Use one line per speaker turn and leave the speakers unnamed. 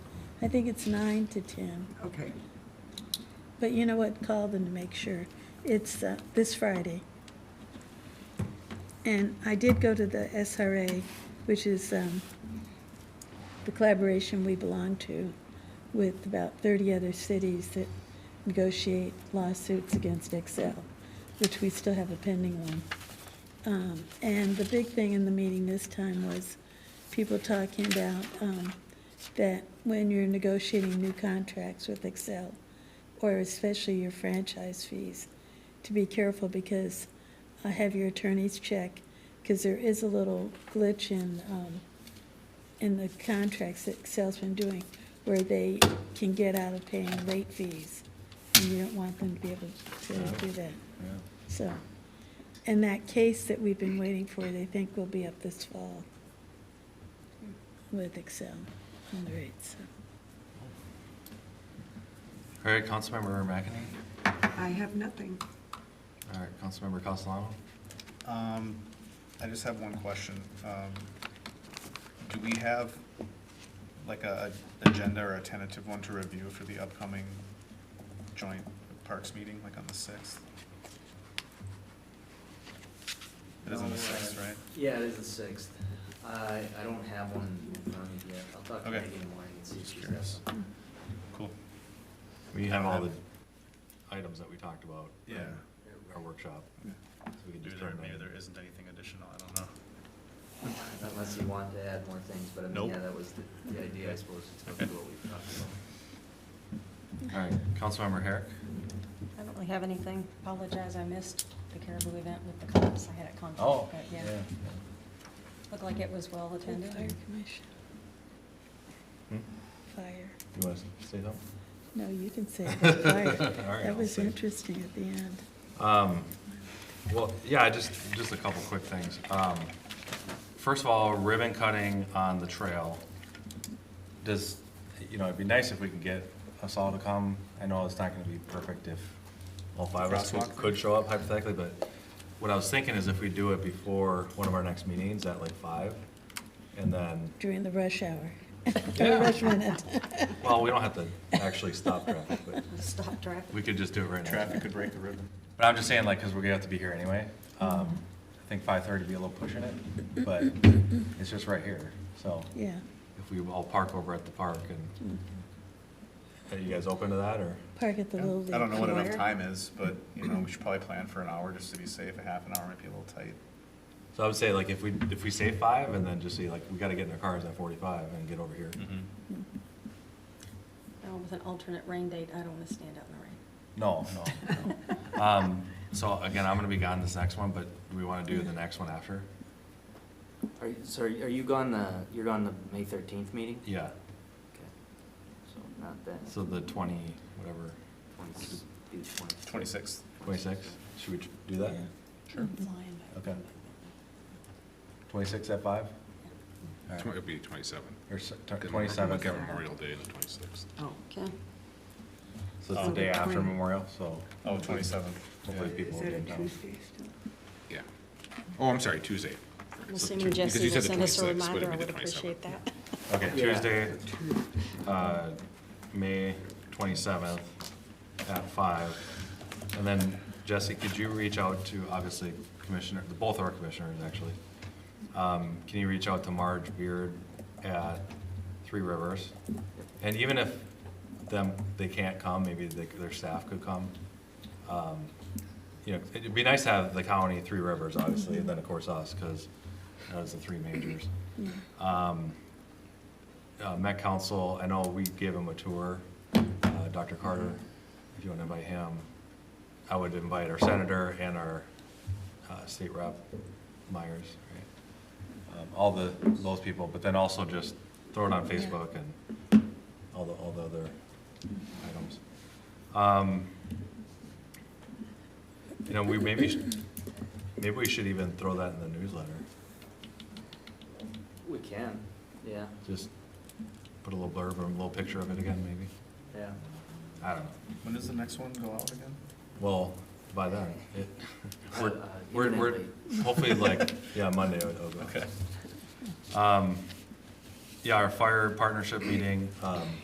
I think it's nine to ten.
Okay.
But you know what? Call them to make sure. It's uh, this Friday. And I did go to the SRA, which is um, the collaboration we belong to with about 30 other cities that negotiate lawsuits against Excel, which we still have a pending one. Um, And the big thing in the meeting this time was people talking about um, that when you're negotiating new contracts with Excel, or especially your franchise fees, to be careful because I have your attorneys check, because there is a little glitch in, um, in the contracts that Excel's been doing, where they can get out of paying late fees, and you don't want them to be able to do that. So, and that case that we've been waiting for, they think will be up this fall with Excel on the rates.
All right, Councilmember McEnany.
I have nothing.
All right, Councilmember Castellano.
Um, I just have one question. Um, Do we have like a a agenda or a tentative one to review for the upcoming joint parks meeting, like on the sixth? It
Oh,
is on the sixth, right?
Um, Yeah, it is the sixth. I, I don't have one in front of me yet. I'll talk to
Okay.
Megan in the morning and see if
Just
she's
curious.
got one.
Cool.
We have all the items that we talked about. in
Yeah.
Our workshop.
Yeah.
So we can
Maybe
just
there,
turn it
maybe
on.
there isn't anything additional, I don't know.
Unless you want to add more things, but I mean,
Nope.
yeah, that was the, the idea, I suppose, to talk about what we've talked
All
about.
right, Councilmember Herrick.
I don't really have anything. Apologize, I missed the caribou event with the cops. I had a conflict.
Oh,
but Looked like it was well
Fire
attended.
commission, fire.
Hmm, You want to say something?
No, you can say it.
Alright,
fire.
I'll
That was
say it.
interesting at the end.
Um, well, yeah, I just, just a couple quick things. Um, first of all, ribbon cutting on the trail. Does, you know, it'd be nice if we could get us all to come. I know it's not gonna be perfect if all five of us could-
Crosswalk.
could show up hypothetically, but what I was thinking is if we do it before one of our next meetings at like five, and then,
During the rush hour.
Yeah.
Or rush minute.
well, we don't have to actually stop traffic, but
Stop traffic.
we could just do it right now.
Traffic could break the ribbon.
But I'm just saying, like, because we're gonna have to be here anyway. Um, I think five thirty would be a little pushing it, but it's just right here, so.
Yeah,
If we all park over at the park and,
Mm.
are you guys open to that, or?
park at the
Yeah.
Little League.
I don't know what enough
Flyer.
time is, but, you know, we should probably plan for an hour just to be safe. A half an hour might be a little tight.
So I would say, like, if we, if we say five, and then just say, like, we gotta get in our cars at forty-five and get over here.
Mm-hmm.
Mm-hmm.
No, With an alternate rain date, I don't want to stand out in the rain.
No, no, no. Um, so again, I'm gonna be gone this next one, but do we wanna do the next one after?
Are you, so are you are you gone the, you're gone the May thirteenth meeting?
Yeah,
Okay. So not that,
so the twenty, whatever,
twenty, do twenty.
Twenty-sixth.
twenty-six, should we do that?
Sure.
Okay. Twenty-six at five?
Tw- It'd be 27.
Or s- t-
Because
27.
We've got Memorial Day and the 26th.
Oh.
Okay.
So it's the day after Memorial, so
Oh, twenty-seventh.
hopefully people will be in town.
Yeah. Oh, I'm sorry, Tuesday. So
I'm assuming
Tu- because you
Jesse
said
will
the
send us a
26th, would it
reminder. I
be the
would appreciate
27th?
that.
Okay,
Yeah.
Tuesday, uh, May twenty-seventh at five. And then Jesse, could you reach out to, obviously, Commissioner, both our commissioners, actually. Um, Can you reach out to Marge Beard at Three Rivers? And even if them, they can't come, maybe they- their staff could come. Um, You know, it'd be nice to have the county, Three Rivers, obviously, and then, of course, us, because those are the three majors.
Yeah.
Um, uh, Met Council, I know we gave him a tour, uh, Dr. Carter, if you want to invite him. I would invite our senator and our uh, state rep, Myers, right? Um, All the, those people, but then also just throw it on Facebook and all the, all the other items. Um, You know, we maybe, should- maybe we should even throw that in the newsletter.
We can, yeah,
Just put a little blurb or a little picture of it again, maybe?
yeah.
I don't know.
When does the next one go out again?
Well, by then, it,
Uh,
we're,
uh,
we're, we're,
imminently.
hopefully like, yeah, Monday it'll it'll go. Um, yeah, our fire partnership meeting, um,